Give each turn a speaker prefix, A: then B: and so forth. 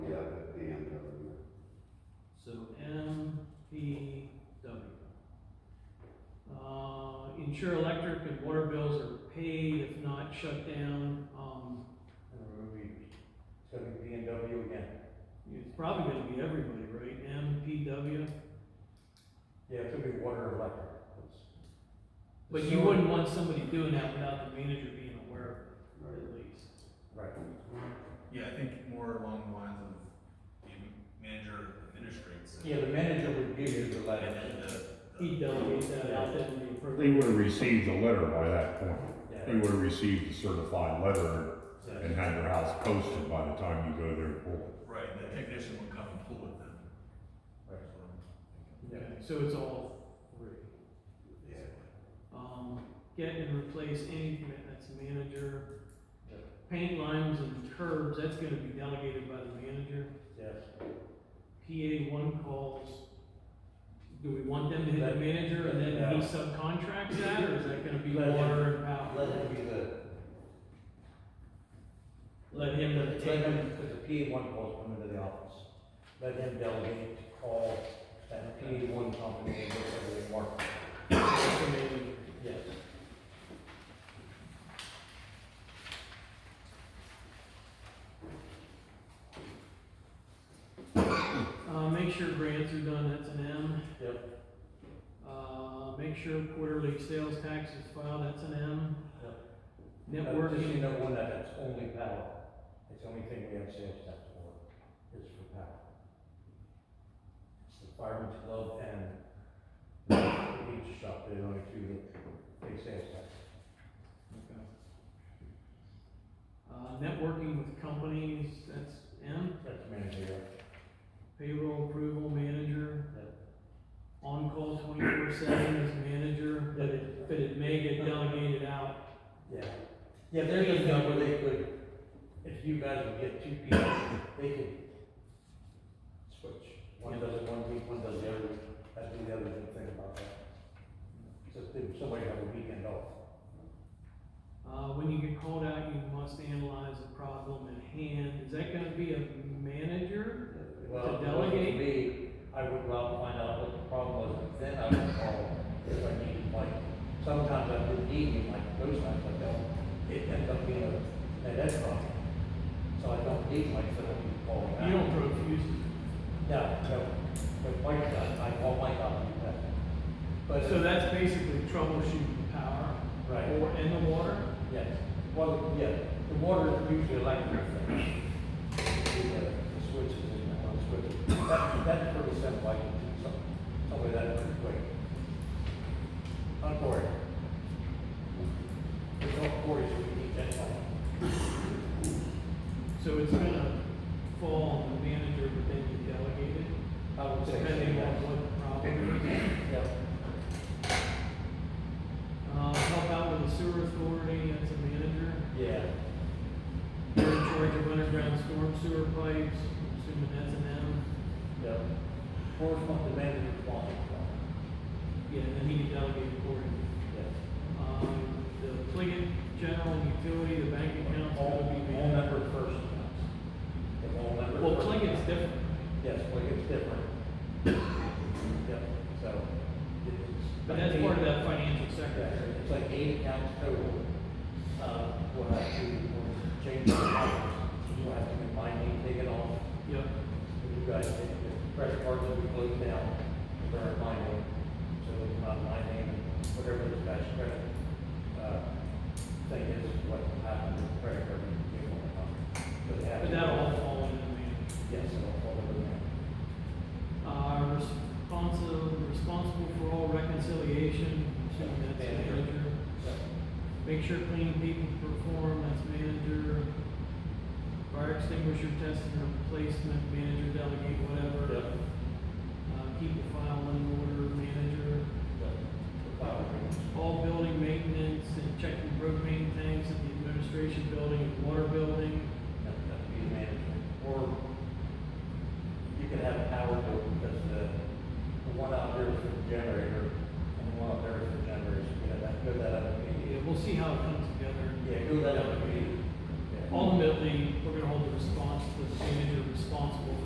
A: ensure Uh, electric and water bills are paid, if not shut down. Um,
B: It's gonna be B and W again.
A: it's probably gonna be everybody, right? M, P, W.
B: Yeah, it's gonna be water and electric. It's-
A: But
B: the
A: you
B: sewer-
A: wouldn't want somebody doing that without the manager being aware of it, or at least.
B: Right.
C: Yeah, I think more along the lines of the manager administrates it.
B: Yeah, the manager would give you the
C: And
B: letter.
C: then the.
A: He delegates that out then when you approve.
D: They would have received a letter by that point. They
B: Yeah.
D: would have received a certified letter
B: Yeah.
D: and had their house posted by the time you go there. and pull
C: Right, the technician would come and pull it then.
B: Right.
A: Okay, so it's all three.
B: Yeah.
A: Um, get and replace any, commit- that's manager.
B: Yeah.
A: Paint lines and curbs, that's gonna be delegated by the manager.
B: Yes.
A: PA one calls, do we want them to hit the manager and then he subcontracts that, or is that gonna be
B: Let him-
A: water and power?
B: Let him be the.
A: Let him
B: Let
A: take
B: him, because the PA one calls come into the office. Let him delegate to call that PA one company and get everything worked.
A: information.
B: Yes.
A: Uh, make sure grants are done, that's an M.
B: Yep.
A: Uh, make sure quarterly sales tax is filed, that's an M.
B: Uh, Just so
A: Networking,
B: you know, one that it's only power. It's the only thing we have sales tax for, is for power. It's the fireman's club and the beach shop, they're the only two that pay sales tax.
A: Okay. Uh, networking with companies, that's M,
B: That's managerial.
A: payroll approval manager. On-call twenty-four seven as manager, but it, but it may get delegated out.
B: Yeah. Yeah, there's a thing where they could, if you guys would get two people, they could switch. One does it one week, one does the other week. That's the other good thing about that. Just if somebody have a weekend off.
A: Uh, when you get called out, you must analyze the problem at hand. Is that gonna be a manager?
B: Well,
A: To
B: if it wasn't
A: delegate?
B: me, I would go out and find out what the problem was, and then I would call if I needed, like, sometimes I would need you, like, those times I don't. It ends up being a, an ed problem. So I don't need Mike, so I can call him.
A: You don't profuse,
B: Yeah, no, but Mike does, I call Mike up and do that. But,
A: so that's basically troubleshooting the power.
B: Right.
A: Or, and the water.
B: yes, well, yeah, the water is usually electric. The uh, the switches and that one switch, that, that's pretty simple, I can do some, something like that pretty quick. Not Cory. There's no Cory, so we need that one.
A: So it's gonna fall on the manager, but then you delegate it.
B: I would say.
A: Depending on what the problem is.
B: Yeah,
A: Uh, help out with the sewer authority, that's a manager.
B: yeah,
A: You're in charge of underground storm sewer pipes, assuming that's an M.
B: yeah. Cory's not the manager of the plant,
A: Yeah, and then he can delegate accordingly.
B: yeah.
A: Um, the Pliget General and Utility, the bank account's
B: All,
A: gonna be
B: all
A: managed.
B: member first. If all member.
A: Well,
B: first-
A: Pliget's different.
B: Yes, well, it's different. Yep, so. it's-
A: But that's part of that financial
B: Yeah,
A: secretary.
B: It's like eight accounts total. Uh, we'll have to, we'll change the accounts. We'll have to get my name taken off.
A: Yep.
B: If You guys, think the credit cards will be closed down, they're my name. So it's not my name, and whatever this guy's credit, uh, thing is, what happened with the credit card. we give them a copy. So they have
A: But
B: to-
A: that'll all fall under the manager.
B: Yes, it'll fall over there.
A: Uh, responsible, responsible for all reconciliation, assuming that's the
B: Manager.
A: manager. Make sure clean people perform, that's manager. Fire extinguisher testing or replacement, manager delegate, whatever.
B: Yep.
A: Uh, keep the file in order, manager.
B: Right,
A: All building maintenance and checking propane tanks at the administration building and water building.
B: that, that be the management, or you could have a power bill, because the, the one out there is for the generator, and the one out there is for generators, you know, that, go that other
A: Yeah,
B: meeting.
A: we'll see how it comes together.
B: Yeah, go that other meeting. Yeah.
A: Ultimately, we're gonna hold the response to the